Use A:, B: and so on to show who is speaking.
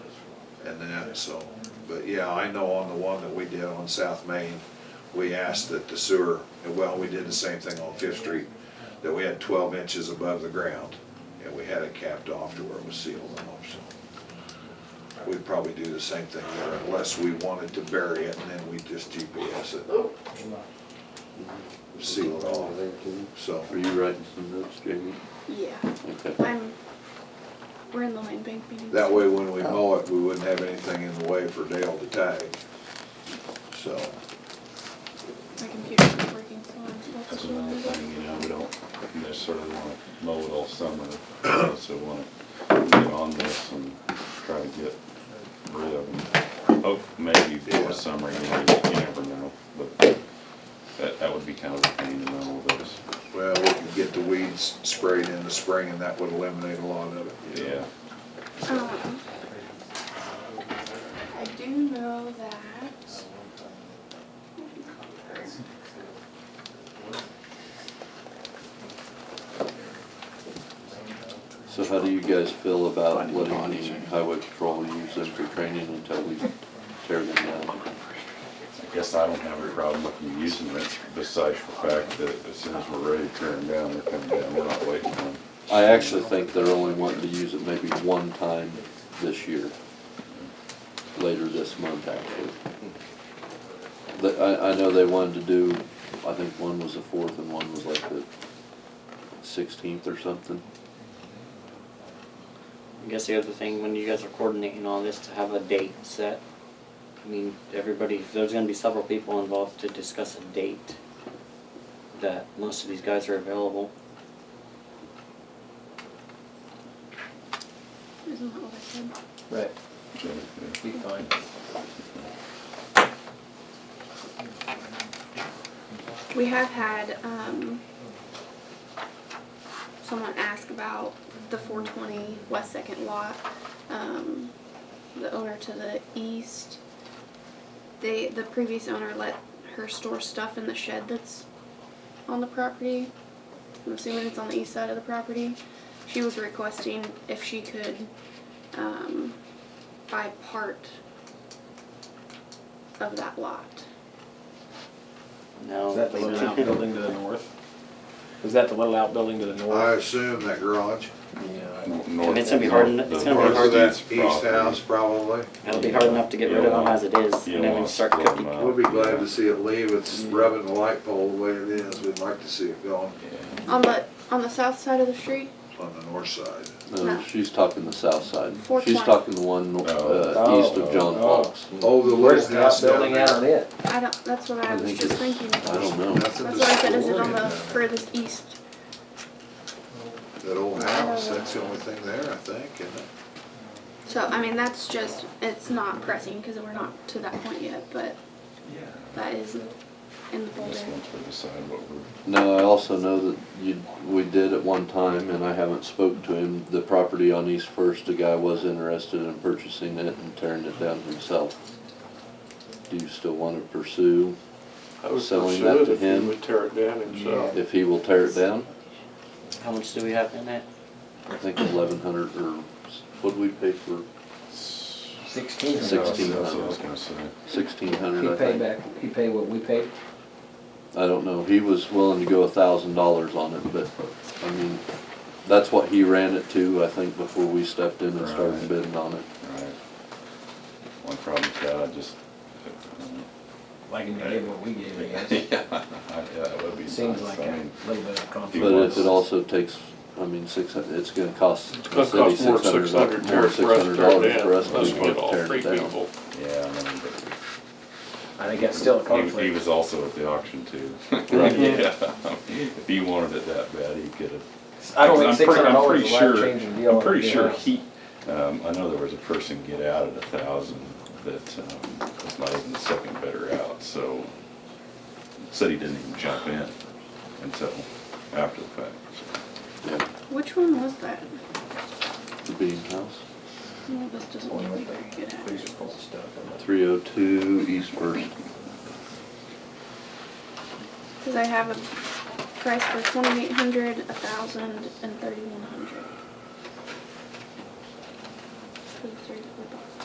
A: and that, so. But yeah, I know on the one that we did on South Main, we asked that the sewer, well, we did the same thing on Fifth Street, that we had twelve inches above the ground, and we had it capped off to where it was sealed off, so. We'd probably do the same thing there unless we wanted to bury it, and then we just GPS it, seal it off, so.
B: Are you writing some notes, Jamie?
C: Yeah,
B: Okay.
C: I'm, we're in the land bank meeting.
A: That way, when we mow it, we wouldn't have anything in the way for Dale to tag. So,
C: My computer's not working, so I'm. not
D: That's
C: sure
D: another
C: what to
D: thing, you
C: do.
D: know, we don't necessarily wanna mow it all summer, we also wanna get on this and try to get rid of them. Oh, maybe
A: Yeah.
D: before summer, you know, you never know, but that, that would be kind of a pain in all of us,
A: well, we could get the weeds sprayed in the spring and that would eliminate a lot of it. you know.
D: yeah.
C: Um, I do know that.
B: So how do you guys feel about letting the highway patrol use them for training until we tear them down?
D: I guess I don't have a problem with you using it, besides the fact that as soon as we're ready to tear them down, they're coming down, we're not waiting on.
B: I actually think they're only wanting to use it maybe one time this year, later this month, actually. The- I, I know they wanted to do, I think one was the fourth and one was like the sixteenth or something.
E: I guess the other thing, when you guys are coordinating all this, to have a date set. I mean, everybody, if there's gonna be several people involved to discuss a date that most of these guys are available.
C: Isn't that what I said?
F: Right,
D: so, yeah.
F: be fine.
C: We have had, um, someone ask about the four twenty West Second Lot. Um, the owner to the east, they, the previous owner let her store stuff in the shed that's on the property. I'm assuming it's on the east side of the property. She was requesting if she could, um, buy part of that lot.
E: No.
F: Is that the little outbuilding to the north? Is that the little outbuilding to the
A: I
F: north?
A: assume that garage,
F: Yeah.
D: North-
E: It's gonna be hard-
D: north-
E: it's
D: the
E: gonna be
D: north
A: or
E: hard-
A: that
D: east
A: east
D: property.
A: house probably.
E: It'll be hard enough to get rid of them as it is,
D: You
E: and
D: don't
E: then we
D: wanna
E: start
D: split 'em
E: cooking.
B: Uh,
D: up.
A: We'll be glad to see it leave. It's rubbing the light pole the way it is. We'd like to see it gone
D: Yeah.
C: On the, on the south side of the street,
A: on the north side.
B: No,
C: No.
B: she's talking the south side. She's
C: 420.
B: talking the one, uh, east of John
F: Oh, oh.
B: Fox.
A: Oh, the
F: Where's
A: lake
F: the
A: house down
F: outbuilding out on
A: there.
F: it?
C: I don't, that's what I
B: I
C: was
B: think
C: just
B: it's-
C: thinking.
B: I
C: That's
B: don't know.
A: Nothing to
C: what I said, is it
A: store
C: on
A: in
C: the
A: down
C: furthest east?
A: there. That old house,
C: Oh.
A: that's the only thing there, I think, isn't it?
C: So, I mean, that's just, it's not pressing, because we're not to that point yet, but that is in the folder.
D: Just once we decide what we're,
B: Now, I also know that you, we did at one time, and I haven't spoke to him, the property on East First, the guy was interested in purchasing it and tearing it down himself. Do you still want to pursue
G: I would
B: Selling
G: pursue
B: that
G: it
B: to
G: if he
B: him?
G: would tear it down himself.
B: if he will tear it down?
E: How much do we have in it?
B: I think eleven hundred or, what'd we pay for
F: Sixteen.
B: Sixteen.
D: that's what I was gonna say.
B: sixteen
F: He
B: hundred, I
F: paid
B: think?
F: back, he paid what we paid?
B: I don't know, he was willing to go a thousand dollars on it, but, I mean, that's what he ran it to, I think, before we stepped in and started
D: Right.
B: bidding on it.
D: Right. One problem with that, I just.
F: Like, and you gave what we gave, I guess.
D: Yeah, I- yeah, that would be nice.
F: Seems like
D: I
F: a
D: mean,
F: little bit of
D: He
B: But
D: wants-
F: conflict.
B: if it also takes, I mean, six, hun- it's gonna cost the
G: Gonna
B: city
G: cost more
B: six
G: than six hundred
B: hundred,
G: tear
B: more
G: it for
B: six hundred dollars for us
G: us to tear it down.
B: to
G: Let's
B: even
G: put all
B: tear
G: three
B: it down.
G: people.
D: Yeah, I know, but.
F: I think that's still a
D: He- He
F: conflict.
D: was also at the auction too.
B: Right.
D: Yeah. If he wanted it that bad, he could have.
F: I don't think
D: I'm
F: six
D: pretty-
F: hundred
D: I'm
F: dollars is
D: pretty
F: a
D: sure-
F: life changing deal. uh,
D: I'm pretty
F: you
D: sure
F: know.
D: he, um, I know there was a person get out at a thousand that, um, was not even the second bidder out, so. Said he didn't even jump in until after the fact, so.
B: Yeah,
C: Which one was that?
B: the Bean House,
C: No, this doesn't look like very good at.
F: Freezer full of stuff.
B: three oh two East First.
C: Because I have a price for twenty-eight hundred, a thousand, and thirty-one hundred.